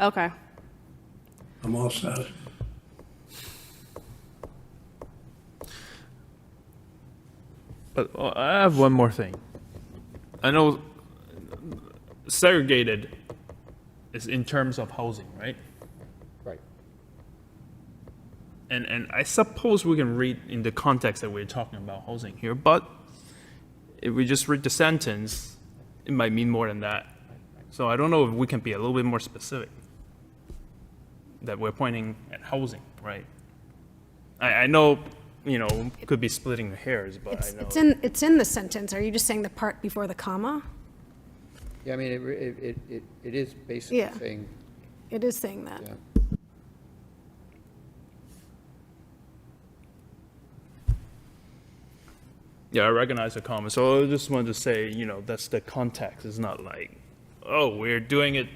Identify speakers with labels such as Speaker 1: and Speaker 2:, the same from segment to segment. Speaker 1: Okay.
Speaker 2: I'm all set.
Speaker 3: But uh, I have one more thing. I know segregated is in terms of housing, right?
Speaker 4: Right.
Speaker 3: And and I suppose we can read in the context that we're talking about housing here, but if we just read the sentence, it might mean more than that. So I don't know if we can be a little bit more specific. That we're pointing at housing, right? I, I know, you know, could be splitting the hairs, but
Speaker 5: It's,
Speaker 3: I know.
Speaker 5: it's in, it's in the sentence. Are you just saying the part before the comma?
Speaker 4: Yeah, I mean, it, re- it, it- it, it is basically
Speaker 5: Yeah.
Speaker 4: saying,
Speaker 5: It is saying that.
Speaker 4: yeah.
Speaker 3: Yeah, I recognize the comment. So I just wanted to say, you know, that's the context. It's not like, oh, we're doing it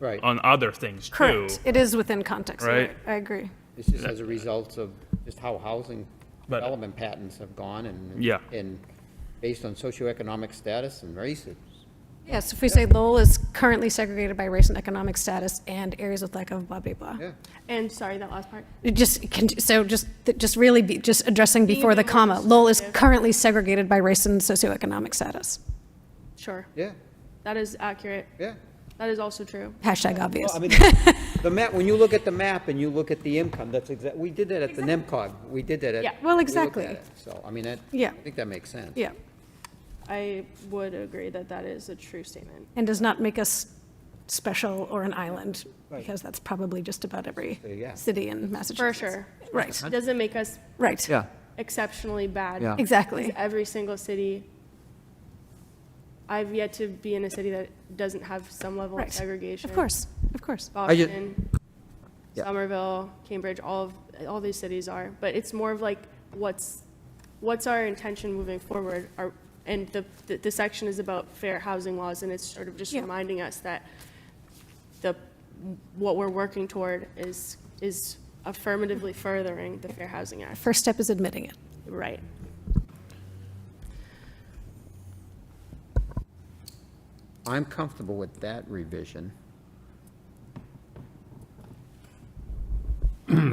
Speaker 4: Right.
Speaker 3: on other things too.
Speaker 5: Correct. It is within context. You're
Speaker 3: Right.
Speaker 5: I agree.
Speaker 4: It's just as a result of just how housing
Speaker 3: But-
Speaker 4: development patterns have gone and.
Speaker 3: Yeah.
Speaker 4: And based on socioeconomic status and races.
Speaker 5: Yes, if we say Lowell is currently segregated by race and economic status and areas with lack of blah, blah, blah.
Speaker 4: Yeah.
Speaker 1: And sorry, that last part.
Speaker 5: It just, it can- so just, just really be, just addressing before the
Speaker 1: more
Speaker 5: comma. Lowell is
Speaker 1: descriptive.
Speaker 5: currently segregated by race and socioeconomic status.
Speaker 1: Sure.
Speaker 4: Yeah,
Speaker 1: That is accurate.
Speaker 4: yeah.
Speaker 1: That is also true.
Speaker 5: Hashtag obvious.
Speaker 4: Well, I mean, the map, when you look at the map and you look at the income, that's exact, we did that at the NIMCOG. We did that at.
Speaker 1: Yeah,
Speaker 5: well,
Speaker 4: we looked at
Speaker 5: exactly.
Speaker 4: it. So, I mean, that.
Speaker 5: Yeah.
Speaker 4: I think that makes sense.
Speaker 5: Yeah,
Speaker 1: I would agree that that is a true statement.
Speaker 5: and does not make us special or an island, because that's probably just about every
Speaker 4: yeah.
Speaker 5: city in
Speaker 1: For
Speaker 5: Massachusetts.
Speaker 1: sure.
Speaker 5: Right,
Speaker 1: It doesn't make us
Speaker 5: right.
Speaker 4: Yeah,
Speaker 1: exceptionally bad.
Speaker 4: Yeah.
Speaker 5: Exactly.
Speaker 1: Because every single city, I've yet to be in a city that doesn't have some level
Speaker 5: Right.
Speaker 1: of segregation.
Speaker 5: Of course, of course.
Speaker 4: ju-
Speaker 1: Boston,
Speaker 4: Yeah.
Speaker 1: Somerville, Cambridge, all of, all these cities are, but it's more of like, what's, what's our intention moving forward? Are, and the, the- the section is about fair housing laws, and it's sort of just
Speaker 5: Yeah.
Speaker 1: reminding us that the, what we're working toward is, is affirmatively furthering the Fair Housing Act.
Speaker 5: First step is admitting it.
Speaker 1: Right.
Speaker 4: I'm comfortable with that revision.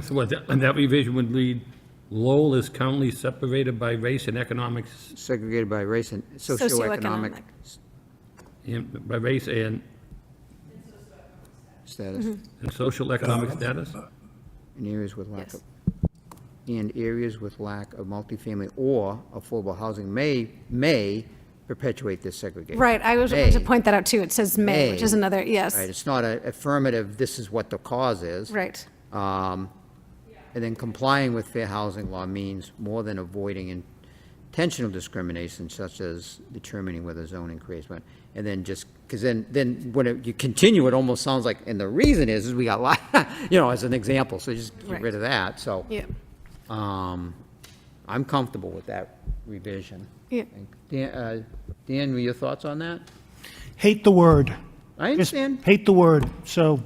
Speaker 6: So what, that- and that revision would read, Lowell is currently separated by race and economics,
Speaker 4: Segregated by race and socioeconomic
Speaker 5: Socioeconomic.
Speaker 6: by race and,
Speaker 4: status
Speaker 6: and social economic status?
Speaker 4: in areas with lack
Speaker 1: Yes.
Speaker 4: of, and areas with lack of multifamily or affordable housing may, may perpetuate this segregation.
Speaker 5: Right, I was going to
Speaker 4: May.
Speaker 5: point that out too. It says may, which is
Speaker 4: May.
Speaker 5: another,
Speaker 4: Right,
Speaker 5: yes,
Speaker 4: it's not a affirmative, this is what the cause is.
Speaker 5: right.
Speaker 4: Um, And then complying with fair housing law means more than avoiding intentional discrimination such as determining whether zoning creates one. And then just, because then, then when it- you continue, it almost sounds like, and the reason is, is we got, li- you know, as an example, so just get
Speaker 5: Right.
Speaker 4: rid of that, so.
Speaker 5: Yeah,
Speaker 4: um, I'm comfortable with that revision.
Speaker 5: yeah.
Speaker 4: Dan, uh, Dan, were your thoughts on that?
Speaker 7: hate the word.
Speaker 4: I
Speaker 7: Just
Speaker 4: understand.
Speaker 7: Hate the word. So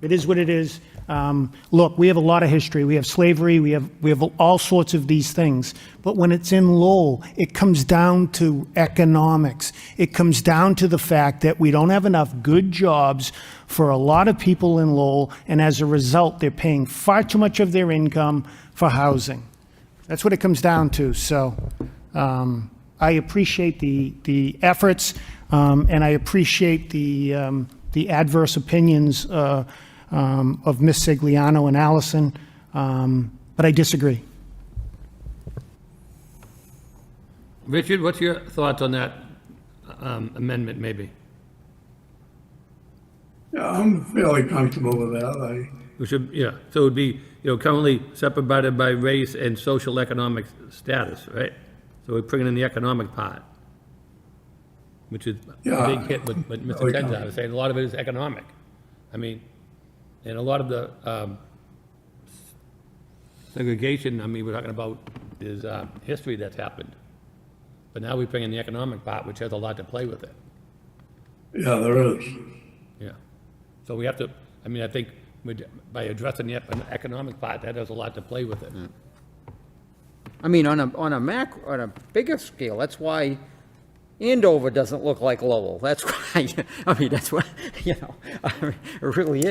Speaker 7: it is what it is. Um, look, we have a lot of history. We have slavery. We have we have all sorts of these things. But when it's in Lowell, it comes down to economics. It comes down to the fact that we don't have enough good jobs for a lot of people in Lowell, and as a result, they're paying far too much of their income for housing. That's what it comes down to. So um, I appreciate the, the efforts, um, and I appreciate the, um, the adverse opinions uh, um, of Ms. Sigliano and Allison, um, but I disagree.
Speaker 6: Richard, what's your thoughts on that um, amendment, maybe?
Speaker 2: Yeah, I'm fairly comfortable with that.
Speaker 6: We should, yeah, so it would be, you know, currently separated by race and social economic status, right? So we're bringing in the economic part, which is a
Speaker 2: Yeah.
Speaker 6: big hit, but, but
Speaker 2: Oh,
Speaker 6: Mr.
Speaker 2: yeah.
Speaker 6: Tenza was saying, a lot of it is economic. I mean, and a lot of the um, segregation, I mean, we're talking about is uh, history that's happened. But now we bring in the economic part, which has a lot to play with it.
Speaker 2: I, yeah, there is.
Speaker 6: Yeah. So we have to, I mean, I think we'd- by addressing the ep- economic part, that has a lot to play with it.
Speaker 4: I mean, on a, on a mac, on a bigger scale, that's why Andover doesn't look like Lowell. That's why, I mean, that's why, you know, I mean, it really is.